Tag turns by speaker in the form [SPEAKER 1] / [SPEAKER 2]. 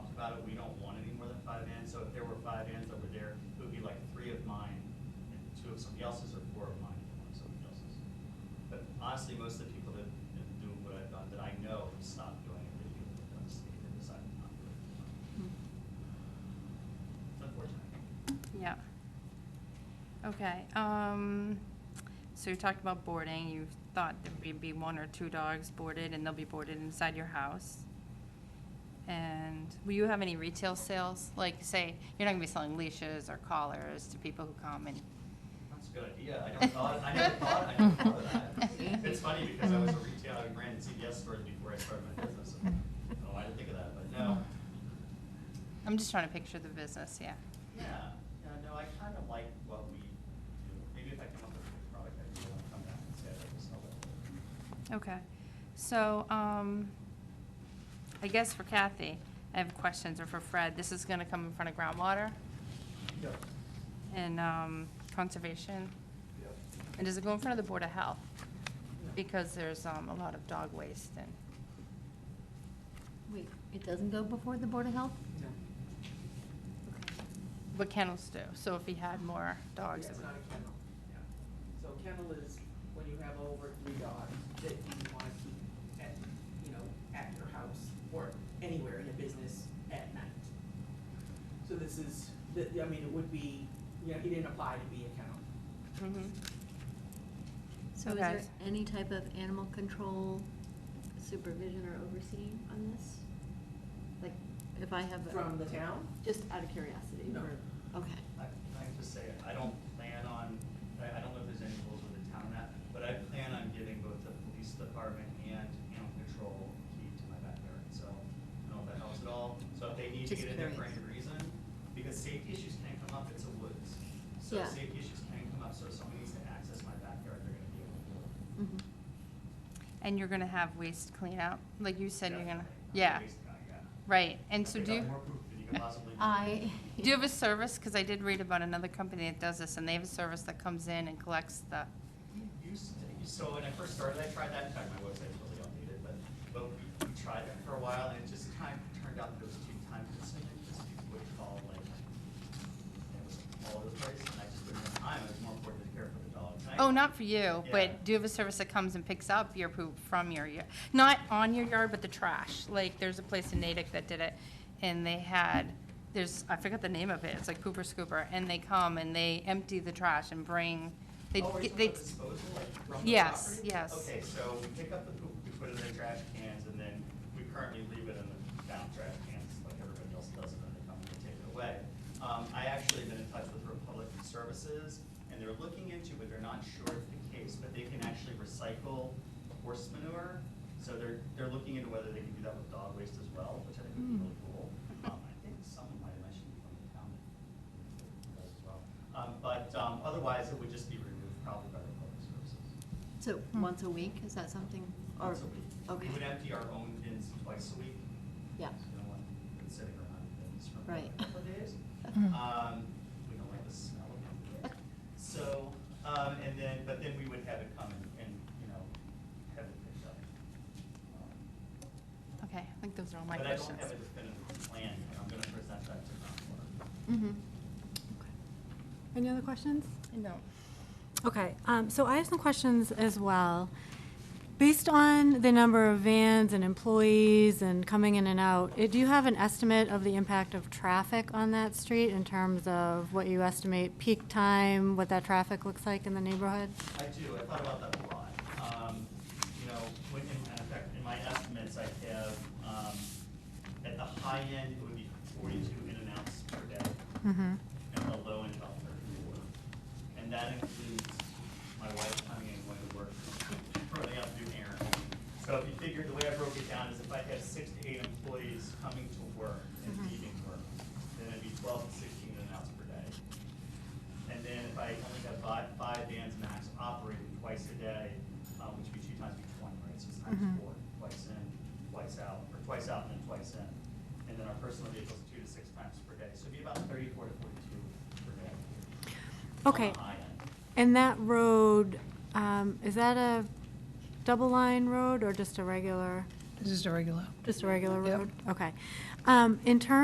[SPEAKER 1] somebody else's or borrow money from somebody else's. But honestly, most of the people that that do what I've done, that I know, have stopped doing it, really, people that honestly, they decided not to. do it. It's unfortunate.
[SPEAKER 2] Yeah. Okay, um, so you talked about boarding, you thought there'd be one or two dogs boarded, and they'll be boarded inside your house. And will you have any retail sales? Like, say, you're not gonna be selling leashes or collars to people who come and,
[SPEAKER 1] That's a good idea. I never thought, I never thought, I never thought of that. It's funny because I was a retailer, I ran CVS stores before I started my business. and- Oh, I didn't think of that, but no.
[SPEAKER 2] I'm just trying to picture the business, yeah.
[SPEAKER 1] Yeah, yeah, no, I kind of like what we do. Maybe if I come up with a good product, I can come back and say I'd like to sell it.
[SPEAKER 2] Okay, so, um, I guess for Kathy, I have questions, or for Fred, this is gonna come in front of groundwater
[SPEAKER 1] Yep,
[SPEAKER 2] and, um, conservation.
[SPEAKER 1] yep.
[SPEAKER 2] And does it go in front of the Board of Health? Because there's um, a lot of dog waste and,
[SPEAKER 3] Wait, it doesn't go before the Board of Health?
[SPEAKER 4] No.
[SPEAKER 2] but kennels do, so if he had more dogs.
[SPEAKER 4] Yeah,
[SPEAKER 2] it
[SPEAKER 4] It's
[SPEAKER 2] would-
[SPEAKER 4] not a kennel, yeah. So kennel is when you have over three dogs that you want to keep at, you know, at your house or anywhere in a business at night. So this is, th- I mean, it would be, you know, he didn't apply to be a kennel.
[SPEAKER 2] Mhm.
[SPEAKER 3] So is there
[SPEAKER 2] Okay.
[SPEAKER 3] any type of animal control supervision or overseeing on this? Like, if I have, a-
[SPEAKER 4] From the town?
[SPEAKER 3] just out of curiosity?
[SPEAKER 4] No.
[SPEAKER 3] or- Okay.
[SPEAKER 1] I, can I just say, I don't plan on, I, I don't know if there's any rules with the town on that, but I plan on giving both the police department and animal control key to my backyard, so I don't know if that helps at all. So if they need to
[SPEAKER 3] Just
[SPEAKER 1] get in there for
[SPEAKER 3] curious.
[SPEAKER 1] any reason, because safety issues can come up, it's a woods. So
[SPEAKER 3] Yeah.
[SPEAKER 1] safety issues can come up, so if someone needs to access my backyard, they're gonna be able to. do it.
[SPEAKER 3] Mhm.
[SPEAKER 2] And you're gonna have waste clean out, like you said you're gonna,
[SPEAKER 1] Definitely. I'm a
[SPEAKER 2] yeah,
[SPEAKER 1] waste guy, yeah.
[SPEAKER 2] right. And so
[SPEAKER 1] I've got
[SPEAKER 2] do you,
[SPEAKER 1] More proof than you can possibly.
[SPEAKER 3] I.
[SPEAKER 2] do you have a service? Because I did read about another company that does this, and they have a service that comes in and collects the,
[SPEAKER 1] We used to, so when I first started, I tried that, in fact, my website's really outdated, but, but we we tried that for a while, and it just kind of turned out that it was too time consuming, because people would call, like, it was all over the place, and I just didn't have time, it was more important to care for the dog. And I-
[SPEAKER 2] oh, not for you,
[SPEAKER 1] Yeah.
[SPEAKER 2] but do you have a service that comes and picks up your poop from your, y- not on your yard, but the trash? Like, there's a place in Natick that did it, and they had, there's, I forgot the name of it, it's like Pooper Scooper, and they come and they empty the trash and bring, they,
[SPEAKER 1] Oh, are you
[SPEAKER 2] get-
[SPEAKER 1] talking
[SPEAKER 2] they,
[SPEAKER 1] about disposal, like, from the property?
[SPEAKER 2] Yes, yes.
[SPEAKER 1] Okay, so we pick up the poop, we put it in the trash cans, and then we currently leave it in the down trash cans, like everybody else does, and then they come and they take it away. Um, I actually been in touch with Republic Services, and they're looking into, but they're not sure if the case, but they can actually recycle horse manure. So they're, they're looking into whether they can do that with dog waste as well, which I think
[SPEAKER 2] Hmm.
[SPEAKER 1] would be really cool. Um, I think someone might have mentioned from the town does as well. Um, But um, otherwise, it would just be removed probably by the public services.
[SPEAKER 3] So
[SPEAKER 2] Hmm.
[SPEAKER 3] once a week, is that something? or-
[SPEAKER 1] Once a week.
[SPEAKER 3] Okay,
[SPEAKER 1] We would empty our own bins twice a week.
[SPEAKER 3] yeah.
[SPEAKER 1] So no one been sitting around in bins for a
[SPEAKER 3] Right.
[SPEAKER 1] couple of days.
[SPEAKER 3] Mhm.
[SPEAKER 1] Um, We don't like the smell of them. So, um, and then, but then we would have it come and, and, you know, have it picked up. Um,
[SPEAKER 2] okay, I think those are all my
[SPEAKER 1] But I don't
[SPEAKER 2] questions.
[SPEAKER 1] have a definitive plan, and I'm gonna present that to Concord.
[SPEAKER 3] Mhm.
[SPEAKER 5] Any other questions?
[SPEAKER 2] No.
[SPEAKER 5] Okay, um, so I have some questions as well. Based on the number of vans and employees and coming in and out, eh, do you have an estimate of the impact of traffic on that street in terms of what you estimate peak time, what that traffic looks like in the neighborhood?
[SPEAKER 1] I do, I thought about that a lot. Um, you know, when, in, in fact, in my estimates, I have, um, at the high end, it would be forty-two in and outs per day.
[SPEAKER 5] Mm-hmm,
[SPEAKER 1] At the low end, about thirty-four. And that includes my wife coming in going to work, running out to do errands. So if you figure, the way I broke it down is if I have six to eight employees coming to work and leaving work, then it'd be twelve to sixteen in and outs per day. And then if I only have five, five vans max operating twice a day, uh, which would be two times each one, right? So it's times
[SPEAKER 5] Mhm.
[SPEAKER 1] four, twice in, twice out, or twice out and then twice in. And then our personal vehicles, two to six times per day. So it'd be about thirty-four to forty-two per day. on the
[SPEAKER 5] okay.
[SPEAKER 1] high end.
[SPEAKER 5] And that road, um, is that a double-line road or just a regular,
[SPEAKER 6] This is a regular.
[SPEAKER 5] just a regular
[SPEAKER 6] Yep.
[SPEAKER 5] road? Okay. Um, in terms